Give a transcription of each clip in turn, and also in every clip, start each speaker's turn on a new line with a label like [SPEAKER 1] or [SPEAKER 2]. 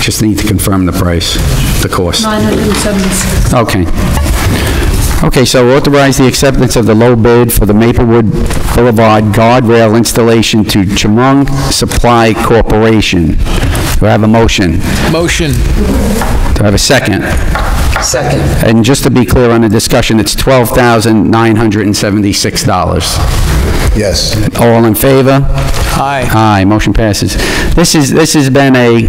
[SPEAKER 1] Just need to confirm the price, the cost.
[SPEAKER 2] 976.
[SPEAKER 1] Okay. Okay, so authorize the acceptance of the low bid for the Maplewood Boulevard guardrail installation to Chemung Supply Corporation. Do I have a motion?
[SPEAKER 3] Motion.
[SPEAKER 1] Do I have a second?
[SPEAKER 4] Second.
[SPEAKER 1] And just to be clear on the discussion, it's $12,976.
[SPEAKER 5] Yes.
[SPEAKER 1] All in favor?
[SPEAKER 3] Aye.
[SPEAKER 1] Aye, motion passes. This is, this has been a,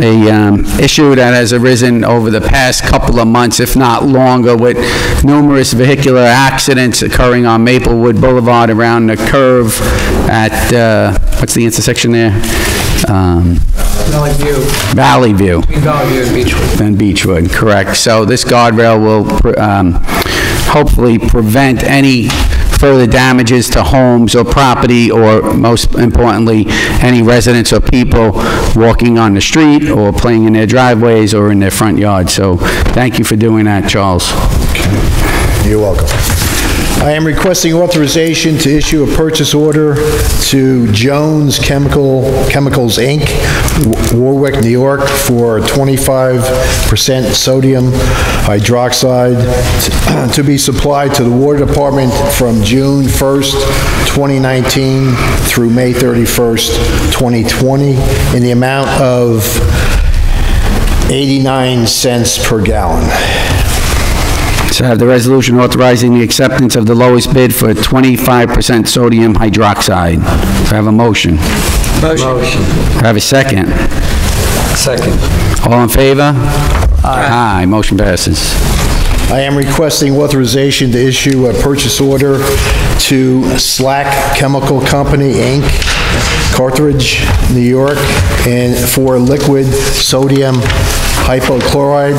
[SPEAKER 1] a um, issue that has arisen over the past couple of months, if not longer, with numerous vehicular accidents occurring on Maplewood Boulevard around the curve at, uh, what's the intersection there? Um,
[SPEAKER 4] Valley View,
[SPEAKER 1] Valley View
[SPEAKER 4] Valley View and Beechwood.
[SPEAKER 1] and Beechwood, correct. So this guardrail will um, hopefully prevent any further damages to homes or property, or most importantly, any residents or people walking on the street or playing in their driveways or in their front yards. So thank you for doing that, Charles.
[SPEAKER 5] You're welcome. I am requesting authorization to issue a purchase order to Jones Chemical, Chemicals, Inc., Wa- Warwick, New York, for 25% sodium hydroxide t- to be supplied to the Water Department from June 1st, 2019 through May 31st, 2020, in the amount of 89 cents per gallon.
[SPEAKER 1] So I have the resolution authorizing the acceptance of the lowest bid for 25% sodium hydroxide. Do I have a motion? Do
[SPEAKER 4] Motion.
[SPEAKER 1] I have a second?
[SPEAKER 4] Second.
[SPEAKER 1] All in favor? Aye, motion passes.
[SPEAKER 5] I am requesting authorization to issue a purchase order to Slack Chemical Company, Inc., Carthage, New York, and for liquid sodium hypochlorite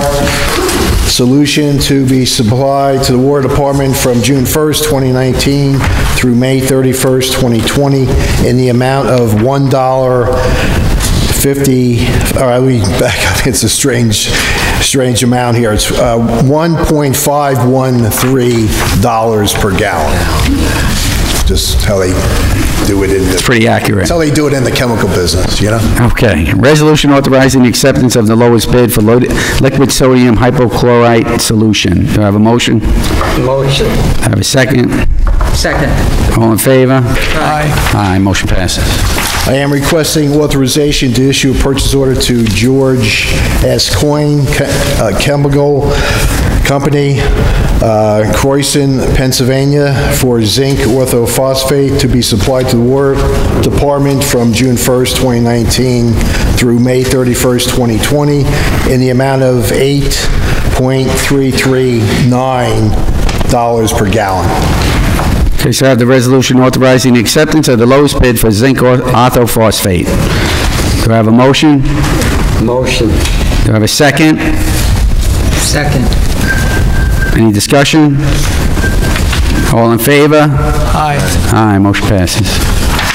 [SPEAKER 5] solution to be supplied to the War Department from June 1st, 2019 through May 31st, 2020, in the amount of $1 50, all right, we back up, it's a strange, strange amount here. It's uh, 1.513 dollars per gallon. Just how they do it in the,
[SPEAKER 1] Pretty accurate.
[SPEAKER 5] that's how they do it in the chemical business, you know?
[SPEAKER 1] Okay. Resolution authorizing the acceptance of the lowest bid for loaded- liquid sodium hypochlorite solution. Do I have a motion? Do
[SPEAKER 4] Motion.
[SPEAKER 1] I have a second?
[SPEAKER 4] Second.
[SPEAKER 1] All in favor?
[SPEAKER 3] Aye.
[SPEAKER 1] Aye, motion passes.
[SPEAKER 5] I am requesting authorization to issue a purchase order to George S. Coin Che- uh, Chemical Company, uh, Croissant, Pennsylvania, for zinc orthophosphate to be supplied to the War Department from June 1st, 2019 through May 31st, 2020, in the amount of $8.339 per gallon.
[SPEAKER 1] Okay, so I have the resolution authorizing the acceptance of the lowest bid for zinc or- orthophosphate. Do I have a motion? Do
[SPEAKER 4] Motion.
[SPEAKER 1] I have a second?
[SPEAKER 4] Second.
[SPEAKER 1] Any discussion? All in favor?
[SPEAKER 3] Aye.
[SPEAKER 1] Aye, motion passes.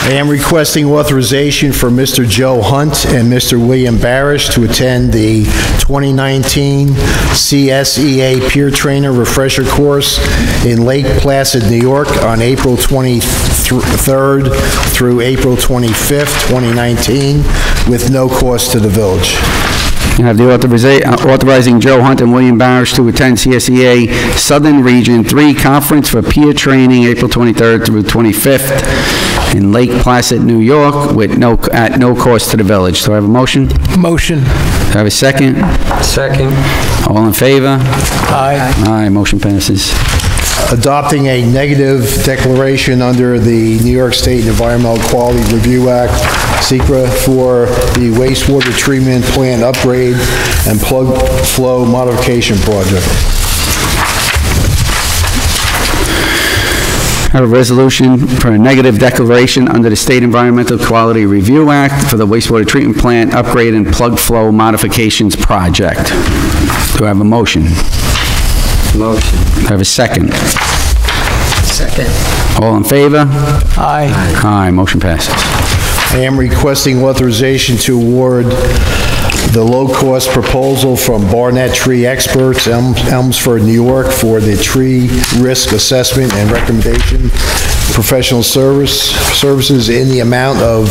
[SPEAKER 5] I am requesting authorization for Mr. Joe Hunt and Mr. William Barish to attend the 2019 CSEA E Peer Trainer Refresher Course in Lake Placid, New York, on April 23rd through April 25th, 2019, with no cost to the village.
[SPEAKER 1] You have the authoriza- uh, authorizing Joe Hunt and William Barish to attend CSEA Southern Region 3 Conference for Peer Training, April 23rd through 25th, in Lake Placid, New York, with no, at no cost to the village. Do I have a motion? Do
[SPEAKER 3] Motion.
[SPEAKER 1] I have a second?
[SPEAKER 4] Second.
[SPEAKER 1] All in favor?
[SPEAKER 3] Aye.
[SPEAKER 1] Aye, motion passes.
[SPEAKER 5] adopting a negative declaration under the New York State Environmental Quality Review Act, (SECRA) for the wastewater treatment plant upgrade and plug flow modification project.
[SPEAKER 1] I have a resolution for a negative declaration under the State Environmental Quality Review Act for the wastewater treatment plant upgrade and plug flow modifications project. Do I have a motion? Do
[SPEAKER 4] Motion.
[SPEAKER 1] I have a second?
[SPEAKER 4] Second.
[SPEAKER 1] All in favor?
[SPEAKER 3] Aye.
[SPEAKER 1] Aye, motion passes.
[SPEAKER 5] I am requesting authorization to award the low-cost proposal from Barnett Tree Experts, Elm- Elmsford, New York, for the tree risk assessment and recommendation professional service, services in the amount of